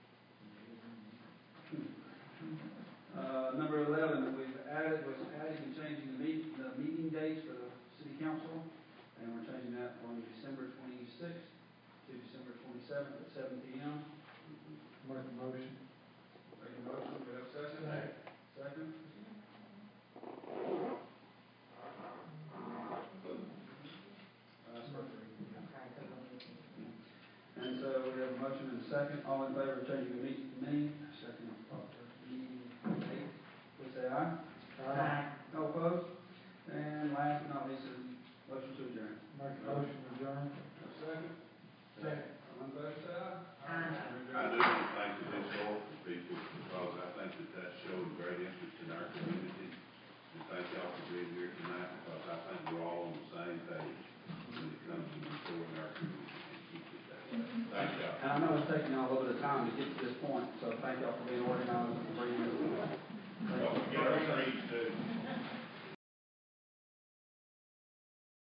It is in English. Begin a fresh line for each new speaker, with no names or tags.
Uh, council, and we're changing that from December twenty-sixth to December twenty-seventh at seven P M.
Make a motion.
Make a motion, do we have a second?
Second.
Second? Uh, sorry. And so we have a motion and a second, all in favor of changing the meeting to May, second of October, meeting date, please say aye. No opposed? And last but not least, is motion to adjourn.
Make a motion, adjourn.
Second?
Second.
All in favor, say aye.
I do want to thank the historical people because I think that that showed great interest in our community. And thank y'all for being here tonight because I think we're all on the same page when it comes to restoring our community and keep it that way. Thank y'all.
And I know it's taken y'all a little bit of time to get to this point, so thank y'all for being organized and